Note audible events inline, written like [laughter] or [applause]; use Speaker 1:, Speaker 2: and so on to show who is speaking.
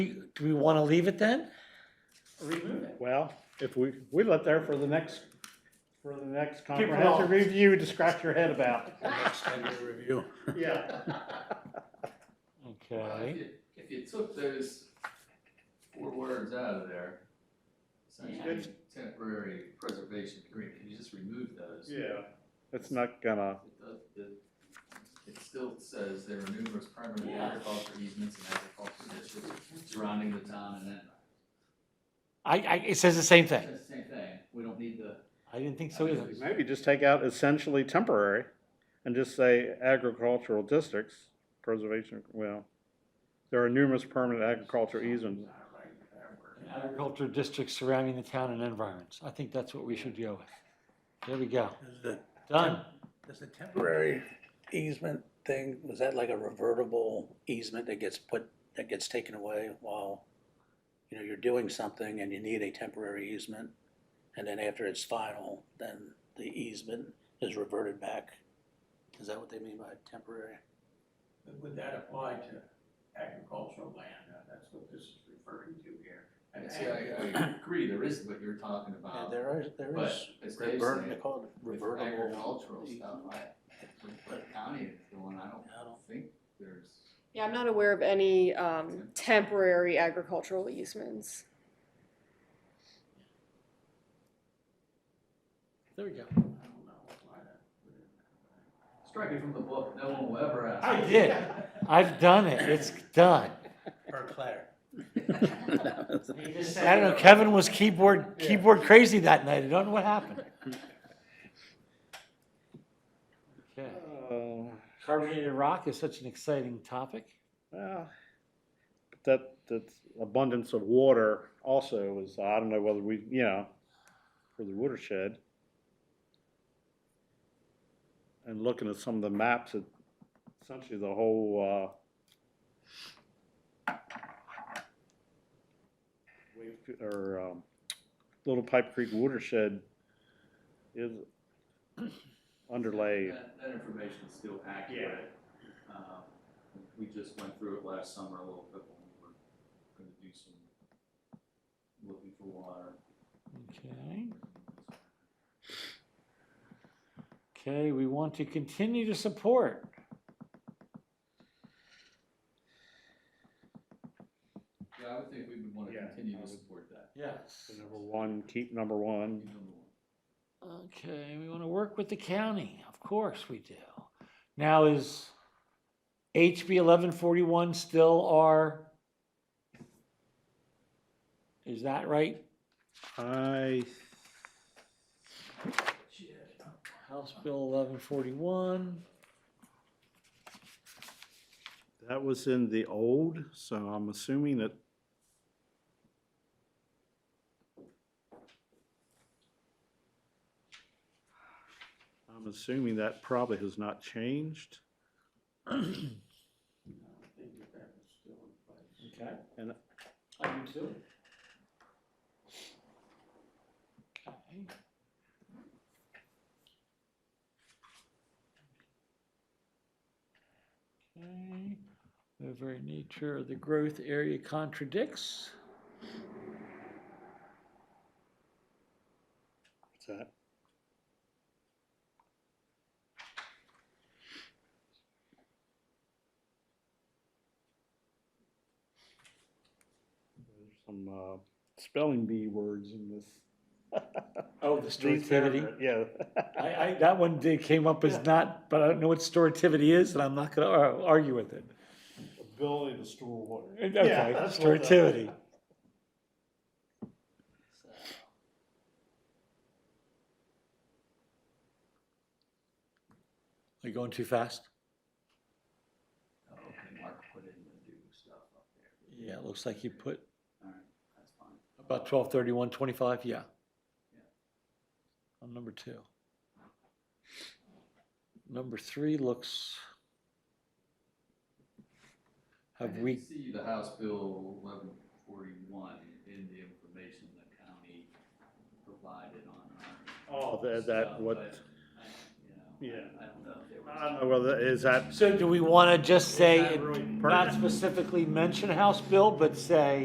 Speaker 1: Do we want to leave it then?
Speaker 2: remove it.
Speaker 3: Well, if we, we left there for the next, for the next
Speaker 2: it
Speaker 3: comprehensive
Speaker 2: off.
Speaker 3: review to scratch your head about.
Speaker 4: Extended review.
Speaker 3: Yeah.
Speaker 5: Well, If you, if you took those four words out of there, essentially temporary preservation agreement, if you just remove those.
Speaker 3: Yeah. It's not gonna,
Speaker 5: It does- it- It still says there are numerous permanent
Speaker 2: Yeah.
Speaker 5: agricultural easements and agricultural districts surrounding the town and that.
Speaker 1: I, I, it says the same thing.
Speaker 5: That's the same thing, we don't need the.
Speaker 1: I didn't think so either.
Speaker 3: maybe just take out essentially temporary and just say agricultural districts, preservation, well, there are numerous permanent agricultural easements.
Speaker 1: Agriculture districts surrounding the town and environs. I think that's what we should go with. There we go.
Speaker 4: Does the,
Speaker 1: Done.
Speaker 4: does the temporary easement thing, was that like a revertible easement that gets put, that gets taken away while, you know, you're doing something and you need a temporary easement? And then after it's final, then the easement is reverted back? Is that what they mean by temporary?
Speaker 6: Would that apply to agricultural land? Uh, That's what this is referring to here. An
Speaker 5: And see, I, I agree, there is what you're talking
Speaker 4: Yeah,
Speaker 5: about,
Speaker 4: There is, there
Speaker 5: but
Speaker 4: is,
Speaker 5: as Dave
Speaker 4: revert, they
Speaker 5: said,
Speaker 4: call it
Speaker 5: with
Speaker 4: revertible.
Speaker 5: agricultural stuff,
Speaker 4: easement.
Speaker 5: I, with what county is doing, I don't
Speaker 4: I don't-
Speaker 5: think there's.
Speaker 7: Yeah, I'm not aware of any um, temporary agricultural easements.
Speaker 1: There we go.
Speaker 6: don't know why that would
Speaker 5: Strike it from the book, no one will ever ask.
Speaker 1: I did. I've done it. It's done.
Speaker 4: Or Claire. [laughs]
Speaker 1: I don't know, Kevin was keyboard,
Speaker 3: Yeah.
Speaker 1: keyboard crazy that night. I don't know what happened. Okay.
Speaker 3: Uh,
Speaker 1: Carbonated rock is such an exciting topic.
Speaker 3: Well, but that, that's abundance of water also is, I don't know whether we, you know, for the watershed. And looking at some of the maps, it, essentially the whole, uh, Wave- or, um, Little Pipe Creek watershed is [clears throat] underlay.
Speaker 5: That, that information is still accurate. Um, We just went through it last summer a little bit when we were gonna do some looking for water.
Speaker 1: Okay. Okay, we want to continue to support.
Speaker 5: Yeah, I would think we would wanna
Speaker 3: Yeah, I
Speaker 5: continue to
Speaker 3: would- Mm-hmm.
Speaker 5: support that.
Speaker 1: Yes.
Speaker 3: Number one, keep number one.
Speaker 5: Even more.
Speaker 1: Okay, we want to work with the county, of course we do. Now is HB eleven forty-one still our? Is that right?
Speaker 3: I
Speaker 1: House Bill eleven forty-one,
Speaker 3: That was in the old, so I'm assuming that. I'm assuming that probably has not changed.
Speaker 6: I think that that was still in place.
Speaker 1: okay.
Speaker 3: And-
Speaker 1: I do too. Okay. Okay, the very nature of the growth area contradicts.
Speaker 3: What's that? There's Some, uh, spelling bee words in this.
Speaker 1: Oh, the storativity.
Speaker 3: Yeah.
Speaker 1: I, I, that one did, came up as not, but I don't know what storativity is, and I'm not gonna ar- argue with it.
Speaker 3: Ability to store water.
Speaker 1: Okay,
Speaker 3: that's what the-
Speaker 1: storativity. Are you going too fast?
Speaker 5: Okay, Mark put in the new stuff up there.
Speaker 1: Yeah, it looks like you put
Speaker 5: Alright, that's fine.
Speaker 1: about twelve thirty-one twenty-five, yeah.
Speaker 5: Yeah.
Speaker 1: On number two. Number three looks.
Speaker 5: I
Speaker 1: Have
Speaker 5: didn't
Speaker 1: we,
Speaker 5: See the House Bill eleven forty-one in the information the county provided on. our
Speaker 3: Oh, that- that
Speaker 5: stuff,
Speaker 3: what-
Speaker 5: but I- You know,
Speaker 3: Yeah.
Speaker 5: I don't know if there was.
Speaker 3: I don't know whether, is that
Speaker 1: so do we wanna just say,
Speaker 3: really
Speaker 1: not
Speaker 3: pertinent?
Speaker 1: specifically mention House Bill, but say